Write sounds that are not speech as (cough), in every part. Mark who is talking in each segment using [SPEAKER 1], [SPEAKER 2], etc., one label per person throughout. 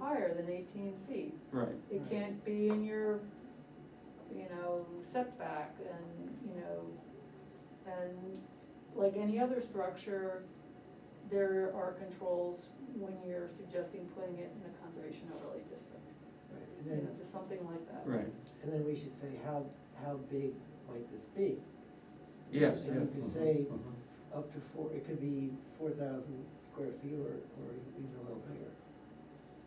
[SPEAKER 1] higher than eighteen feet.
[SPEAKER 2] Right,
[SPEAKER 1] It
[SPEAKER 3] Right.
[SPEAKER 1] can't be in your, you know, setback and, you know, and like any other structure, there are controls when you're suggesting putting it in a conservation overlay district,
[SPEAKER 3] Right,
[SPEAKER 1] you
[SPEAKER 3] And
[SPEAKER 1] know,
[SPEAKER 3] then,
[SPEAKER 1] just something like that.
[SPEAKER 2] right,
[SPEAKER 3] and then we should say, how, how big might this be?
[SPEAKER 2] yes,
[SPEAKER 3] And
[SPEAKER 2] yes.
[SPEAKER 3] you could say
[SPEAKER 2] uh-huh, uh-huh.
[SPEAKER 3] up to four, it could be four thousand square feet or, or even a little bigger.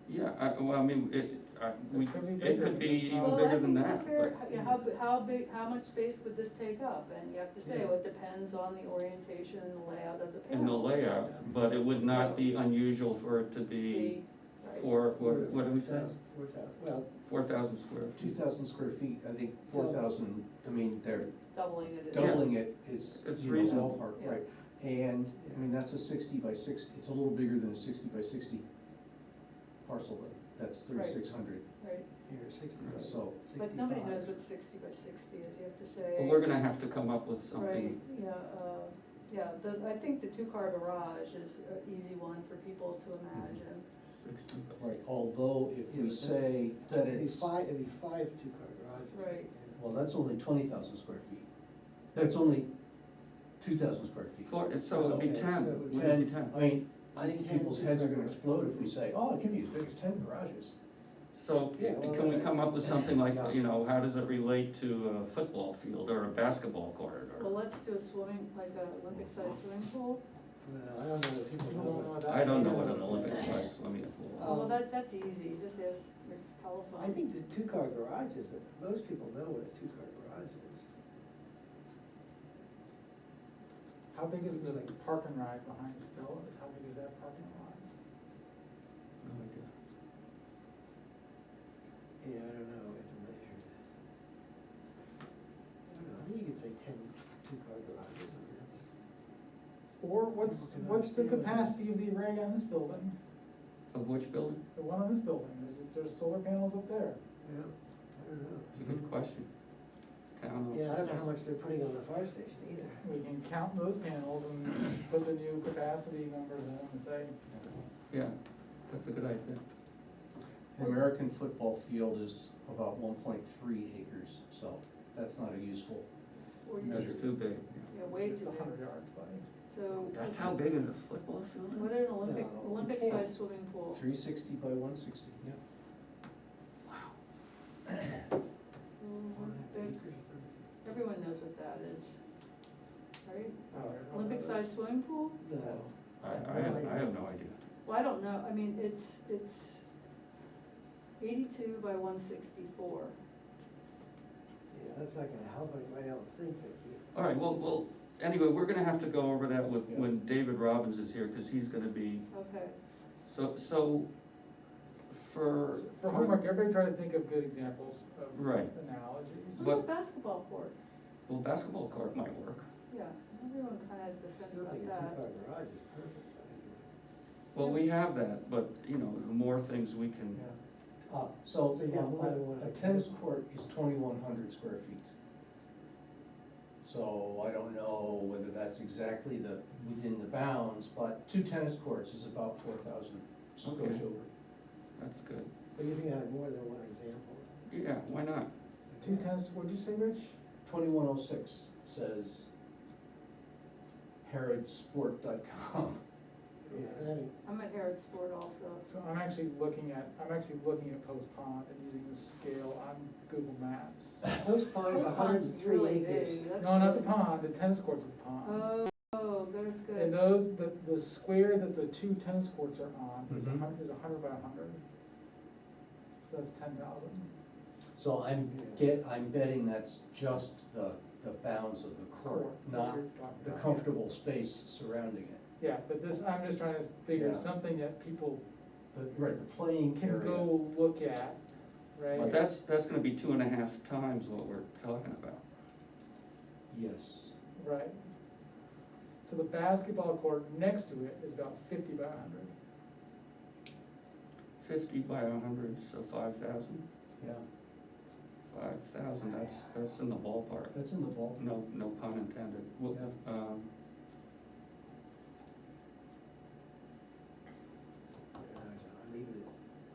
[SPEAKER 2] Yeah, I, well, I mean, it, I, we,
[SPEAKER 3] could be
[SPEAKER 2] it
[SPEAKER 3] bigger
[SPEAKER 2] could
[SPEAKER 3] than
[SPEAKER 2] be
[SPEAKER 3] this
[SPEAKER 2] even
[SPEAKER 1] Well, I
[SPEAKER 2] bigger
[SPEAKER 1] think
[SPEAKER 2] than
[SPEAKER 1] it's a
[SPEAKER 2] that,
[SPEAKER 1] fair-
[SPEAKER 2] but,
[SPEAKER 1] yeah, How, b- how big, how much space would this take up? And you have to say,
[SPEAKER 3] Yeah.
[SPEAKER 1] well, it depends on the orientation and the layout of the panels.
[SPEAKER 2] and the layout, but it would not be unusual for it to be
[SPEAKER 1] The- right.
[SPEAKER 2] four, what, what do we say?
[SPEAKER 3] Four thousand, well,
[SPEAKER 2] Four thousand square
[SPEAKER 4] Two
[SPEAKER 2] feet.
[SPEAKER 4] thousand square feet, I think four thousand, I mean, they're
[SPEAKER 1] Doubling it is.
[SPEAKER 4] doubling it is.
[SPEAKER 2] It's
[SPEAKER 4] you know,
[SPEAKER 2] reasonable.
[SPEAKER 4] ballpark,
[SPEAKER 1] Yeah.
[SPEAKER 4] Right, and, I mean, that's a sixty by six, it's a little bigger than a sixty by sixty parcel, but that's
[SPEAKER 1] Right.
[SPEAKER 4] thirty-six hundred.
[SPEAKER 1] Right,
[SPEAKER 3] here, sixty by
[SPEAKER 4] So-
[SPEAKER 1] but
[SPEAKER 3] sixty-five.
[SPEAKER 1] nobody knows what sixty by sixty is, you have to say.
[SPEAKER 2] But we're gonna have to come up with
[SPEAKER 1] Right,
[SPEAKER 2] something,
[SPEAKER 1] yeah, uh, yeah, the, I think the two-car garage is an easy one for people to imagine.
[SPEAKER 2] Mm-hmm. sixty by
[SPEAKER 4] Right, although if
[SPEAKER 3] Yeah,
[SPEAKER 4] we
[SPEAKER 3] but
[SPEAKER 4] say that
[SPEAKER 3] It'd be
[SPEAKER 4] it's,
[SPEAKER 3] five, it'd be five two-car garages.
[SPEAKER 1] Right.
[SPEAKER 5] Well, that's only twenty thousand square feet. That's only two thousand square feet.
[SPEAKER 2] Four, it's- so it'd be
[SPEAKER 3] Okay,
[SPEAKER 2] ten,
[SPEAKER 3] so it would
[SPEAKER 2] would it
[SPEAKER 5] Ten,
[SPEAKER 2] be ten?
[SPEAKER 5] I mean, I think
[SPEAKER 3] Ten
[SPEAKER 5] people's heads are gonna
[SPEAKER 3] two-car
[SPEAKER 5] explode if we
[SPEAKER 3] garages.
[SPEAKER 5] say, oh, it can be as big as ten garages.
[SPEAKER 2] So, yeah,
[SPEAKER 3] Well,
[SPEAKER 2] can we come up with
[SPEAKER 3] (laughs)
[SPEAKER 2] something like,
[SPEAKER 3] yeah.
[SPEAKER 2] you know, how does it relate to a football field or a basketball court
[SPEAKER 1] Well,
[SPEAKER 2] or?
[SPEAKER 1] let's do a swimming, like a
[SPEAKER 2] Uh-huh.
[SPEAKER 1] Olympic-sized swimming pool,
[SPEAKER 3] Well, I don't know if people know what.
[SPEAKER 2] I don't know what an Olympic size swimming
[SPEAKER 3] Uh,
[SPEAKER 2] pool,
[SPEAKER 1] Oh, well, that, that's easy, just ask your telephone.
[SPEAKER 3] I think the two-car garage is, it. most people know what a two-car garage is.
[SPEAKER 6] How big is the park and ride behind Stella's? How big is that parking lot?
[SPEAKER 3] Yeah, I don't know, we have to measure that. I don't know, I think you could say ten two-car garages on that.
[SPEAKER 6] Or what's, what's the capacity of the array on this building,
[SPEAKER 2] of which building?
[SPEAKER 6] the one on this building? There's, there's solar panels up there.
[SPEAKER 3] Yeah, I don't know.
[SPEAKER 2] It's a good question. Town
[SPEAKER 3] Yeah, I don't know
[SPEAKER 2] offices.
[SPEAKER 3] how much they're putting on the fire station
[SPEAKER 1] (laughs)
[SPEAKER 3] either.
[SPEAKER 6] We can count those panels and put the new capacity numbers in and say,
[SPEAKER 2] Yeah, that's a good idea.
[SPEAKER 4] an American football field is about one point three acres, so that's not a useful.
[SPEAKER 1] Or you
[SPEAKER 2] That's
[SPEAKER 1] could-
[SPEAKER 2] too big.
[SPEAKER 1] Yeah, way
[SPEAKER 6] it's
[SPEAKER 1] too
[SPEAKER 6] a hundred
[SPEAKER 1] big,
[SPEAKER 6] yard play.
[SPEAKER 1] so.
[SPEAKER 2] That's how big a football
[SPEAKER 1] What
[SPEAKER 2] field is?
[SPEAKER 1] an Olympic,
[SPEAKER 3] No, you
[SPEAKER 1] Olympic
[SPEAKER 3] can't.
[SPEAKER 1] sized swimming pool,
[SPEAKER 4] Three sixty by one sixty, yeah.
[SPEAKER 1] Olympic, Mm-hmm. everyone knows what that is, right?
[SPEAKER 3] Oh,
[SPEAKER 6] I don't know
[SPEAKER 1] Olympic
[SPEAKER 6] those.
[SPEAKER 1] sized swimming pool?
[SPEAKER 3] No.
[SPEAKER 2] I, I, I have no idea.
[SPEAKER 1] Well, I don't know, I mean, it's, it's eighty-two by one sixty-four.
[SPEAKER 3] Yeah, that's not gonna help anybody else think that you.
[SPEAKER 2] All right, well, well, anyway, we're gonna have to go over that with, when David Robbins is here, cause he's gonna be,
[SPEAKER 1] Okay,
[SPEAKER 2] so, so for.
[SPEAKER 6] So For homework, everybody try to think of good examples of
[SPEAKER 2] Right.
[SPEAKER 6] analogies.
[SPEAKER 1] what
[SPEAKER 2] But-
[SPEAKER 1] about basketball court?
[SPEAKER 2] Well, basketball court might work.
[SPEAKER 1] Yeah, everyone kind of has the sense
[SPEAKER 3] I
[SPEAKER 1] about
[SPEAKER 3] think a
[SPEAKER 1] that.
[SPEAKER 3] two-car garage is perfect. I think.
[SPEAKER 2] Well, we have that, but, you know, the more things we can,
[SPEAKER 4] Uh, so,
[SPEAKER 3] So you got more than one.
[SPEAKER 4] um, a tennis court is twenty-one hundred square feet. So I don't know whether that's exactly the, within the bounds, but two tennis courts is about four thousand, goes
[SPEAKER 2] Okay.
[SPEAKER 4] over.
[SPEAKER 2] that's good.
[SPEAKER 3] But you can have more than one example.
[SPEAKER 2] Yeah, why not?
[SPEAKER 6] Two tennis, what'd you say, Rich?
[SPEAKER 4] Twenty-one oh six says harrodsport.com.
[SPEAKER 3] Yeah, that,
[SPEAKER 1] I'm at Harrod Sport also.
[SPEAKER 6] So I'm actually looking at, I'm actually looking at Post Pond and using the scale on Google Maps.
[SPEAKER 3] Post Pond is
[SPEAKER 1] Those
[SPEAKER 3] hundred
[SPEAKER 1] ponds
[SPEAKER 3] and three
[SPEAKER 1] really
[SPEAKER 3] acres.
[SPEAKER 1] big, that's
[SPEAKER 6] No, not the
[SPEAKER 1] really-
[SPEAKER 6] pond, the tennis courts at the pond.
[SPEAKER 1] Oh, oh, there's
[SPEAKER 6] And
[SPEAKER 1] good.
[SPEAKER 6] those, the, the square that the two tennis courts are on is a
[SPEAKER 4] Mhm.
[SPEAKER 6] hundred, is a hundred by a hundred. So that's ten thousand.
[SPEAKER 4] So I'm get, I'm betting that's just the, the bounds of the court, not the comfortable space surrounding it.
[SPEAKER 6] Yeah, but this, I'm just trying to figure
[SPEAKER 4] Yeah.
[SPEAKER 6] something that people
[SPEAKER 4] The- Right, the playing
[SPEAKER 6] can
[SPEAKER 4] area.
[SPEAKER 6] go look at,
[SPEAKER 2] But
[SPEAKER 6] right?
[SPEAKER 2] that's, that's gonna be two and a half times what we're talking about.
[SPEAKER 4] Yes.
[SPEAKER 6] Right. So the basketball court next to it is about fifty by a hundred.
[SPEAKER 2] Fifty by a hundred, so five thousand.
[SPEAKER 4] Yeah,
[SPEAKER 2] Five thousand, that's, that's in the ballpark.
[SPEAKER 4] that's in the ballpark.
[SPEAKER 2] No, no pun intended. Well, um,